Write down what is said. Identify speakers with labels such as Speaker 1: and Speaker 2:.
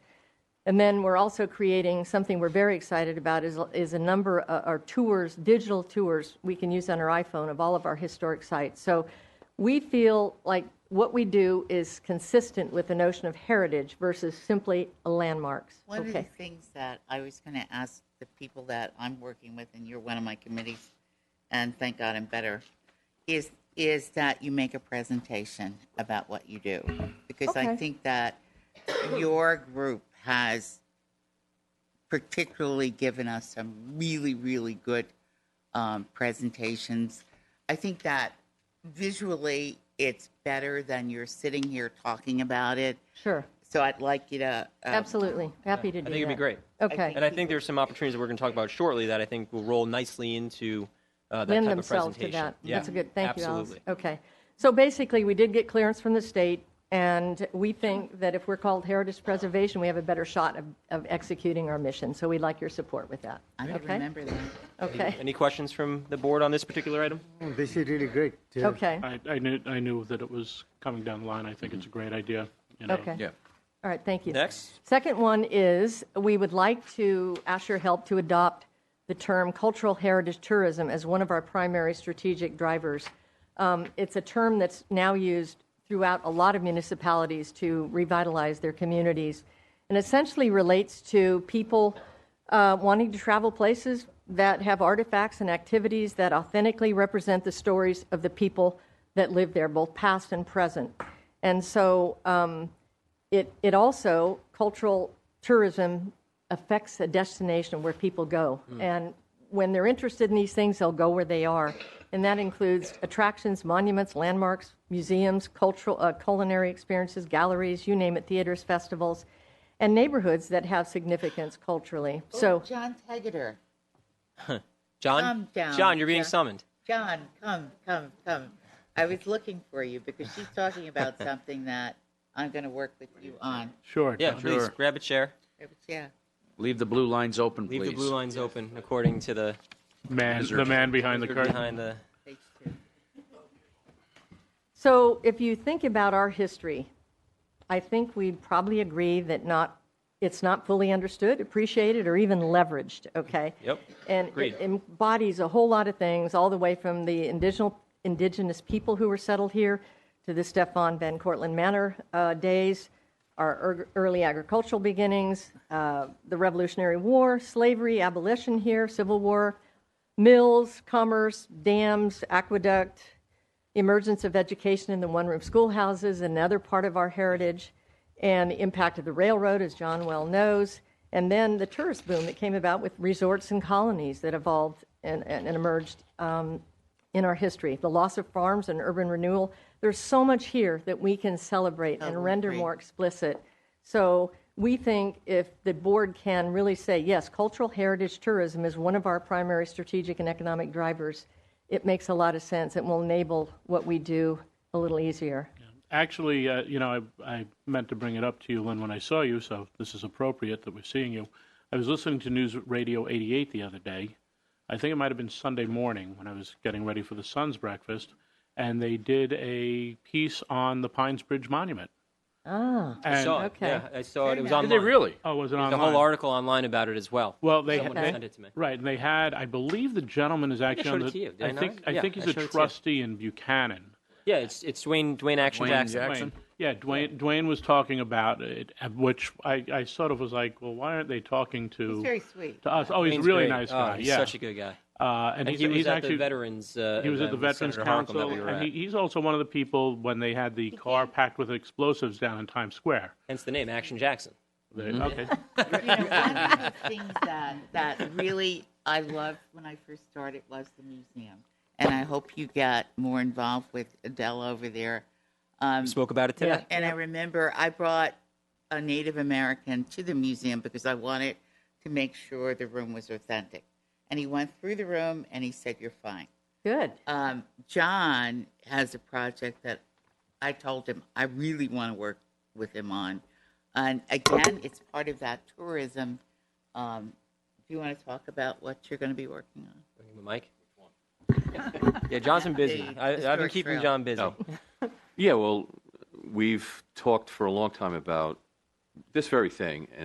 Speaker 1: And then we're also creating something we're very excited about is, is a number of our tours, digital tours we can use on our iPhone of all of our historic sites. So we feel like what we do is consistent with the notion of heritage versus simply landmarks.
Speaker 2: One of the
Speaker 1: Okay.
Speaker 2: things that I was going to ask the people that I'm working with, and you're one of my committees, and thank God I'm better, is is that you make a presentation about what you do, because I
Speaker 1: Okay.
Speaker 2: think that your group has particularly given us some really really good um, presentations. I think that visually it's better than you're sitting here talking about it.
Speaker 1: Sure,
Speaker 2: So I'd like you to um,
Speaker 1: absolutely. Happy to do that.
Speaker 3: I think it'd be great.
Speaker 1: Okay.
Speaker 3: And I think there's some opportunities that we're going to talk about shortly that I think will roll nicely into uh, that
Speaker 1: lend
Speaker 3: type of
Speaker 1: themselves to
Speaker 3: presentation.
Speaker 1: that.
Speaker 3: Yeah,
Speaker 1: That's a good, thank you, Alice.
Speaker 3: Absolutely.
Speaker 1: Okay. So basically, we did get clearance from the state, and we think that if we're called Heritage Preservation, we have a better shot of, of executing our mission. So we'd like your support with that.
Speaker 2: I don't
Speaker 1: Okay?
Speaker 2: remember that.
Speaker 1: Okay,
Speaker 3: Any questions from the board on this particular item?
Speaker 4: This is really great. uh,
Speaker 1: okay,
Speaker 5: I, I knew, I knew that it was coming down the line. I think it's a
Speaker 3: Mm-hmm.
Speaker 5: great idea. you know.
Speaker 1: okay. All right, thank you.
Speaker 3: Next.
Speaker 1: Second one is, we would like to ask your help to adopt the term cultural heritage tourism as one of our primary strategic drivers. Um, It's a term that's now used throughout a lot of municipalities to revitalize their communities, and essentially relates to people uh, wanting to travel places that have artifacts and activities that authentically represent the stories of the people that live there, both past and present. And so um, it, it also, cultural tourism affects a destination where people go. And when they're interested in these things, they'll go where they are. And that includes attractions, monuments, landmarks, museums, cultural, uh, culinary experiences, galleries, you name it, theaters, festivals, and neighborhoods that have significance culturally. So,
Speaker 2: John Tegeter. Calm
Speaker 3: John?
Speaker 2: down,
Speaker 3: John, you're being
Speaker 2: Jeff.
Speaker 3: summoned.
Speaker 2: John, come, come, come. I was looking for you because she's talking about something that I'm going to work with you on.
Speaker 5: Sure.
Speaker 3: Yeah,
Speaker 5: John.
Speaker 3: please,
Speaker 6: Sure.
Speaker 3: grab a chair.
Speaker 2: Yeah.
Speaker 6: Leave the blue lines open, please.
Speaker 3: Leave the blue lines open according to the,
Speaker 5: Man, the man behind the curtain.
Speaker 3: behind the,
Speaker 2: Page two.
Speaker 1: so if you think about our history, I think we'd probably agree that not, it's not fully understood, appreciated, or even leveraged, okay?
Speaker 3: Yep.
Speaker 1: And
Speaker 3: Agreed.
Speaker 1: it embodies a whole lot of things, all the way from the indigenous, indigenous people who were settled here to the Stefan Van Cortlandt Manor uh, days, our er- early agricultural beginnings, uh, the Revolutionary War, slavery, abolition here, Civil War, mills, commerce, dams, aqueduct, emergence of education in the one-room schoolhouses, another part of our heritage, and the impact of the railroad, as John well knows, and then the tourist boom that came about with resorts and colonies that evolved and, and, and emerged um, in our history, the loss of farms and urban renewal. There's so much here that we can celebrate and render
Speaker 2: agree.
Speaker 1: more explicit. So we think if the board can really say, yes, cultural heritage tourism is one of our primary strategic and economic drivers, it makes a lot of sense. It will enable what we do a little easier.
Speaker 5: Actually, uh, you know, I, I meant to bring it up to you, Lynn, when I saw you, so this is appropriate that we're seeing you. I was listening to News Radio 88 the other day. I think it might have been Sunday morning when I was getting ready for the Sun's breakfast, and they did a piece on the Pines Bridge Monument.
Speaker 1: Ah,
Speaker 5: And,
Speaker 3: saw it.
Speaker 1: okay.
Speaker 3: Yeah, I saw it. It was online.
Speaker 6: Did they really?
Speaker 5: Oh, was it
Speaker 3: There's a
Speaker 5: online?
Speaker 3: whole article online about it as well.
Speaker 5: Well, they,
Speaker 3: Someone
Speaker 5: they-
Speaker 3: sent it to me.
Speaker 5: right, and they had. I believe the gentleman is actually
Speaker 3: showed
Speaker 5: on
Speaker 3: it
Speaker 5: the.
Speaker 3: to you, did I
Speaker 5: I
Speaker 3: not?
Speaker 5: think I
Speaker 3: Yeah,
Speaker 5: think
Speaker 3: I
Speaker 5: he's
Speaker 3: showed it
Speaker 5: a
Speaker 3: to you.
Speaker 5: trustee in Buchanan.
Speaker 3: Yeah, it's, it's Dwayne, Dwayne Action
Speaker 6: Dwayne
Speaker 3: Jackson.
Speaker 6: Jackson.
Speaker 5: Dwayne, yeah, Dwayne. Dwayne was talking about it, at which I, I sort of was like, well, why aren't they talking to
Speaker 2: He's very sweet.
Speaker 5: to us? Oh, he's a
Speaker 3: Dwayne's
Speaker 5: really
Speaker 3: great.
Speaker 5: nice
Speaker 3: Oh,
Speaker 5: guy.
Speaker 3: he's
Speaker 5: yeah,
Speaker 3: such a good guy.
Speaker 5: uh, and
Speaker 3: And
Speaker 5: he's,
Speaker 3: he was
Speaker 5: he's
Speaker 3: at
Speaker 5: actually
Speaker 3: the Veterans. Uh,
Speaker 5: he was at
Speaker 3: event
Speaker 5: the
Speaker 3: with
Speaker 5: Veterans
Speaker 3: Senator Harkin
Speaker 5: Council,
Speaker 3: that we were
Speaker 5: and
Speaker 3: at.
Speaker 5: he, he's also one of the people when they had the car packed with explosives down in Times Square.
Speaker 3: Hence the name Action Jackson. Mm-hmm.
Speaker 5: They- Okay.
Speaker 2: You know, one of the things that, that really I loved when I first started was the museum. And I hope you got more involved with Adele over there. Um,
Speaker 3: Spoke about it today.
Speaker 1: Yeah.
Speaker 2: And I remember I brought a Native American to the museum because I wanted to make sure the room was authentic. And he went through the room and he said, You're fine.
Speaker 1: Good.
Speaker 2: Um, John has a project that I told him I really want to work with him on. And again, it's part of that tourism. Um, do you want to talk about what you're going to be working on?
Speaker 3: Bring him a mic. yeah, John's been busy.
Speaker 2: The
Speaker 3: I, I've been
Speaker 2: historic
Speaker 3: keeping
Speaker 2: trail.
Speaker 3: John busy.
Speaker 6: Yeah, well, we've talked for a long time about this very thing,